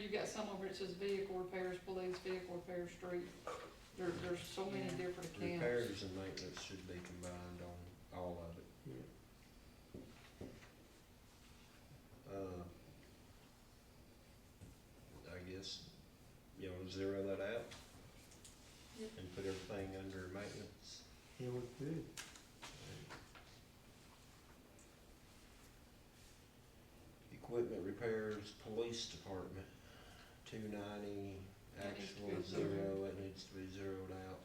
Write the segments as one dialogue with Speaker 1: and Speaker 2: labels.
Speaker 1: you've got some over it says vehicle repairs, police, vehicle repair, street. There, there's so many
Speaker 2: Yeah.
Speaker 1: different accounts.
Speaker 3: Repairs and maintenance should be combined on all of it.
Speaker 2: Yeah.
Speaker 3: Uh, I guess, you know, zero that out
Speaker 1: Yep.
Speaker 3: and put everything under maintenance.
Speaker 2: Yeah, we could.
Speaker 3: Equipment repairs, police department, two ninety,
Speaker 1: That needs to
Speaker 3: actual
Speaker 1: be
Speaker 3: is zero, it needs to be zeroed out.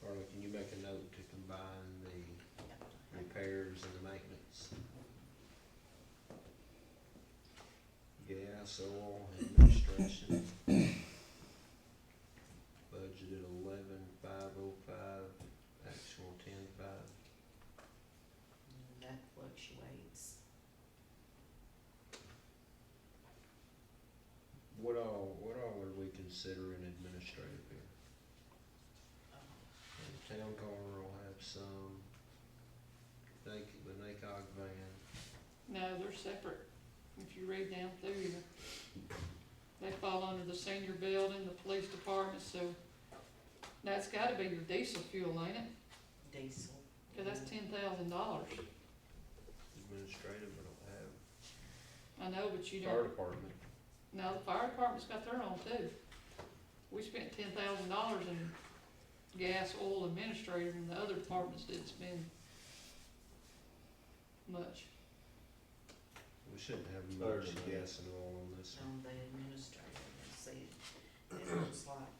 Speaker 3: Carla, can you make a note to combine the repairs and the maintenance? Gas, oil, administration. Budgeted eleven five oh five, actual ten five.
Speaker 4: And That fluctuates.
Speaker 3: What all, what all are we considering administrative here?
Speaker 4: um,
Speaker 3: And the Town car will have some, they, c- the NACOG van,
Speaker 1: No, they're separate. If you read down through you, they fall under the senior building, the police department, so that's gotta be your diesel fuel, ain't it?
Speaker 4: Diesel.
Speaker 1: Cause that's ten thousand dollars.
Speaker 3: administrative, we don't have.
Speaker 1: I know, but you
Speaker 3: Fire
Speaker 1: don't,
Speaker 3: department,
Speaker 1: no, the fire department's got their own too. We spent ten thousand dollars in gas, oil, administrator, and the other departments didn't spend much.
Speaker 3: we shouldn't have
Speaker 2: Fire
Speaker 3: much
Speaker 2: department.
Speaker 3: gas and oil on this one.
Speaker 4: On the administrator, let's see, it looks like,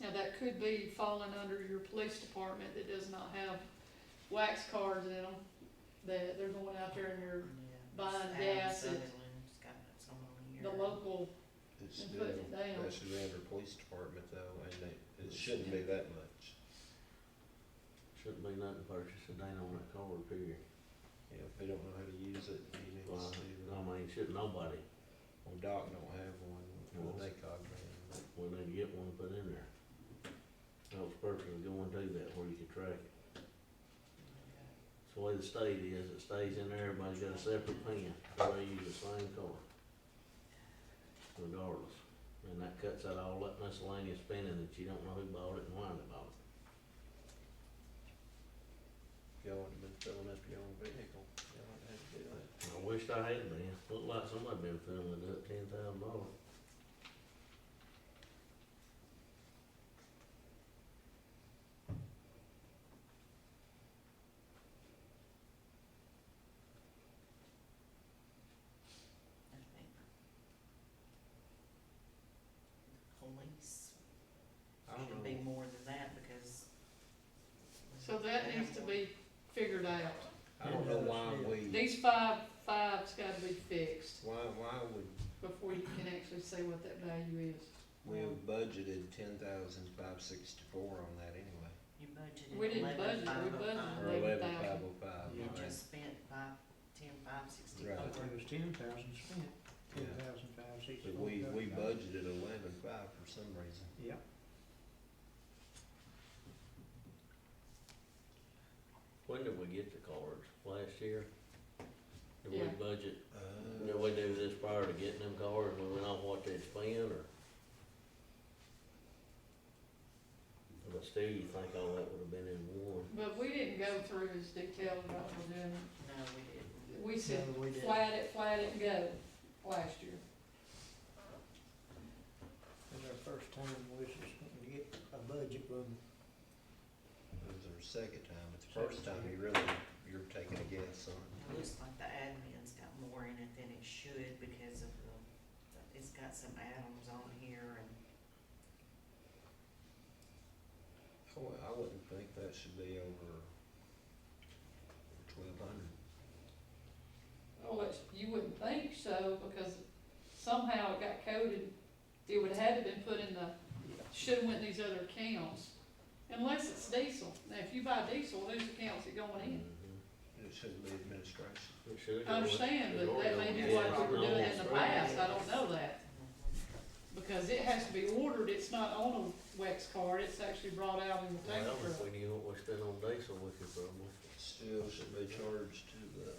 Speaker 1: Now, that could be falling under your police department that does not have wax cars in them, that they're going out there and
Speaker 4: yeah.
Speaker 1: they're
Speaker 4: it's
Speaker 1: Buying
Speaker 4: Adam
Speaker 1: gas, it's-
Speaker 4: Sutherland's got some on here.
Speaker 1: the
Speaker 4: uh,
Speaker 1: local,
Speaker 3: It's
Speaker 1: And
Speaker 3: still,
Speaker 1: put it down.
Speaker 3: that should be under police department though, and it, it shouldn't be that much.
Speaker 2: Shouldn't be nothing purchased a day on that car repair.
Speaker 3: You know, if they don't know how to use it, you need to
Speaker 2: Well,
Speaker 3: see
Speaker 2: I
Speaker 3: them.
Speaker 2: mean, shouldn't nobody,
Speaker 3: Well, Doc don't have one,
Speaker 2: Well,
Speaker 3: the NACOG van, but.
Speaker 2: we need to get one put in there. I was personally going to do that where you could track it.
Speaker 4: Yeah.
Speaker 2: It's the way the state is, it stays in there, everybody's got a separate pen, so they use the same car. Regardless, and that cuts out all that miscellaneous spending that you don't know who bought it and why they bought it.
Speaker 3: Y'all would have been filling up your own vehicle, y'all would have had to do that.
Speaker 2: I wished I had been, looked like somebody been filling it up ten thousand dollars.
Speaker 4: I think. Police
Speaker 3: I don't
Speaker 4: should
Speaker 3: know.
Speaker 4: be more than that because.
Speaker 1: so that needs to be figured out.
Speaker 3: I don't know why we,
Speaker 1: These five, five's gotta be fixed
Speaker 3: why, why would,
Speaker 1: before you can actually see what that value is.
Speaker 3: we have budgeted ten thousand five sixty-four on that anyway.
Speaker 4: You
Speaker 1: We
Speaker 4: budgeted
Speaker 1: didn't budget,
Speaker 4: eleven
Speaker 1: we
Speaker 4: five oh
Speaker 1: budgeted
Speaker 3: Or
Speaker 4: five.
Speaker 1: Eleven
Speaker 3: eleven
Speaker 1: thousand.
Speaker 3: five oh five,
Speaker 4: You
Speaker 3: right?
Speaker 4: just spent five, ten, five sixty-four.
Speaker 3: Right.
Speaker 5: It was ten thousand spent, ten
Speaker 3: Yeah.
Speaker 5: thousand five sixty.
Speaker 3: But we, we budgeted eleven five for some reason.
Speaker 5: Yep,
Speaker 2: When did we get the cards, last year? Did
Speaker 1: Yeah.
Speaker 2: we budget, did
Speaker 3: Uh,
Speaker 2: we do this prior to getting them cards, we went off what they'd spend, or? But still, you think all that would've been in one?
Speaker 1: But we didn't go through as detailed about what we're doing.
Speaker 4: No, we didn't.
Speaker 1: We said,
Speaker 5: No, we didn't.
Speaker 1: flat it, flat it, go, last year.
Speaker 5: it's our first time we was just gonna get a budget when
Speaker 3: it was our second time, but the first time you really, you're taking a guess on it.
Speaker 4: It looks like the admin's got more in it than it should because of the, it's got some atoms on here and
Speaker 3: I wou- I wouldn't think that should be over twelve hundred.
Speaker 1: Well, it's- you wouldn't think so, because somehow it got coded, it would have to been put in the, should've went in these other accounts. Unless it's diesel, now if you buy diesel, whose account's it going in?
Speaker 2: Mhm.
Speaker 3: It shouldn't be administration.
Speaker 2: It should've
Speaker 1: I
Speaker 2: gone-
Speaker 1: understand,
Speaker 2: it's
Speaker 1: but
Speaker 2: already
Speaker 1: that may
Speaker 2: on
Speaker 1: be
Speaker 2: the-
Speaker 1: what we were doing in the
Speaker 2: it's
Speaker 1: past, I don't know that.
Speaker 4: Uh-huh.
Speaker 1: Because it has to be ordered, it's not on a wax card, it's actually brought out in the
Speaker 2: Well,
Speaker 1: tank
Speaker 2: if
Speaker 1: truck.
Speaker 2: we knew what we spent on diesel, we could probably.
Speaker 3: Still should be charged to the